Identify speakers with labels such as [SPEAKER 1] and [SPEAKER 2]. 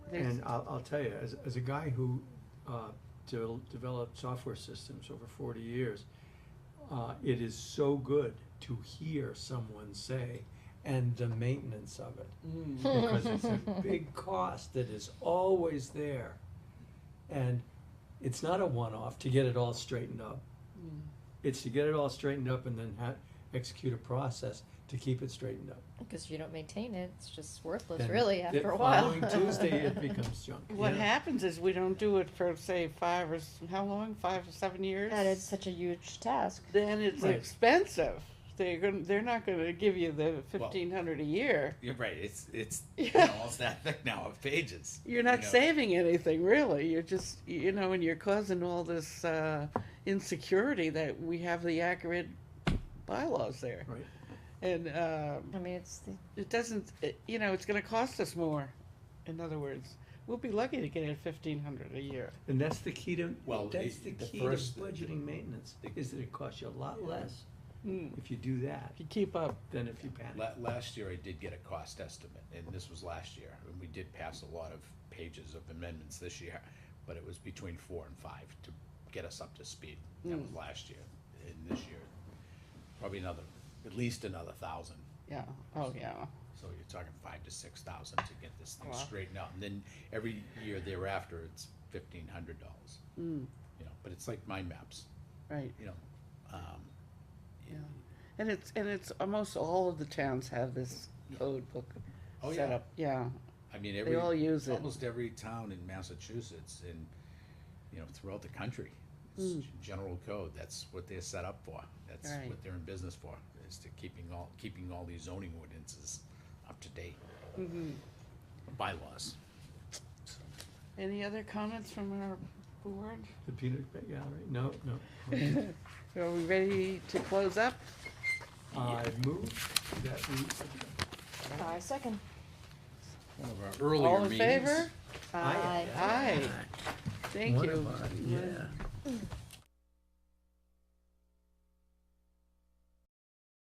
[SPEAKER 1] There's-
[SPEAKER 2] And I'll, I'll tell you, as, as a guy who, uh, de- developed software systems over forty years, uh, it is so good to hear someone say, and the maintenance of it. Because it's a big cost that is always there. And it's not a one-off to get it all straightened up.
[SPEAKER 3] Mm.
[SPEAKER 2] It's to get it all straightened up and then ha- execute a process to keep it straightened up.
[SPEAKER 1] Because you don't maintain it, it's just worthless,
[SPEAKER 2] Then
[SPEAKER 1] really,
[SPEAKER 2] the
[SPEAKER 1] after a while.
[SPEAKER 2] Following Tuesday, it becomes junk.
[SPEAKER 3] What
[SPEAKER 2] Yeah.
[SPEAKER 3] happens is we don't do it for say five or s- how long? Five or seven years.
[SPEAKER 1] And it's such a huge task.
[SPEAKER 3] then it's
[SPEAKER 2] Right.
[SPEAKER 3] expensive. They're going they're not going to give you the fifteen hundred a year.
[SPEAKER 4] You're right. It's it's
[SPEAKER 3] Yeah.
[SPEAKER 4] almost that thick now of pages.
[SPEAKER 3] You're not
[SPEAKER 4] you know.
[SPEAKER 3] saving anything really. You're just you know, and you're causing all this uh, insecurity that we have the accurate bylaws there,
[SPEAKER 2] Right.
[SPEAKER 3] and um,
[SPEAKER 1] I mean, it's the,
[SPEAKER 3] it doesn't. It, you know, it's going to cost us more. In other words, we'll be lucky to get it fifteen hundred a year.
[SPEAKER 2] And that's the key to,
[SPEAKER 4] Well,
[SPEAKER 2] that's
[SPEAKER 4] it-
[SPEAKER 2] the
[SPEAKER 4] the
[SPEAKER 2] key to
[SPEAKER 4] first-
[SPEAKER 2] budgeting maintenance, is that it costs you a lot less
[SPEAKER 3] Mm.
[SPEAKER 2] if you do that
[SPEAKER 3] If you keep up.
[SPEAKER 2] than if you panic.
[SPEAKER 4] La- last year, I did get a cost estimate, and this was last year, and we did pass a lot of pages of amendments this year, but it was between four and five to get us up to speed. That
[SPEAKER 3] Hmm.
[SPEAKER 4] was last year, and this year, probably another, at least another thousand.
[SPEAKER 3] Yeah. Oh yeah.
[SPEAKER 4] So you're talking five to six thousand to get this thing
[SPEAKER 3] Wow.
[SPEAKER 4] straightened out, and then every year thereafter, it's fifteen hundred dollars.
[SPEAKER 3] Mm.
[SPEAKER 4] You know, but it's like mind maps,
[SPEAKER 3] Right.
[SPEAKER 4] you know, um,
[SPEAKER 3] Yeah. And it's and it's almost all of the towns have this code book
[SPEAKER 4] Oh,
[SPEAKER 3] set
[SPEAKER 4] yeah.
[SPEAKER 3] up. Yeah.
[SPEAKER 4] I mean, every
[SPEAKER 3] all use it.
[SPEAKER 4] almost every town in Massachusetts and you know throughout the country, it's general code. That's what they're set up for. That's
[SPEAKER 3] Hmm. Right.
[SPEAKER 4] what they're in business for. Is to keeping all keeping all these zoning ordinances up to date,
[SPEAKER 3] Mm-hmm.
[SPEAKER 4] bylaws.
[SPEAKER 3] Any other comments from our board?
[SPEAKER 2] The peanut Gallery, no, no.
[SPEAKER 3] Are we ready to close up?
[SPEAKER 2] I move that we
[SPEAKER 1] I second.
[SPEAKER 4] One of our earlier
[SPEAKER 3] All in
[SPEAKER 4] meetings.
[SPEAKER 3] favor?
[SPEAKER 1] I
[SPEAKER 3] Aye. Thank you.
[SPEAKER 2] yeah.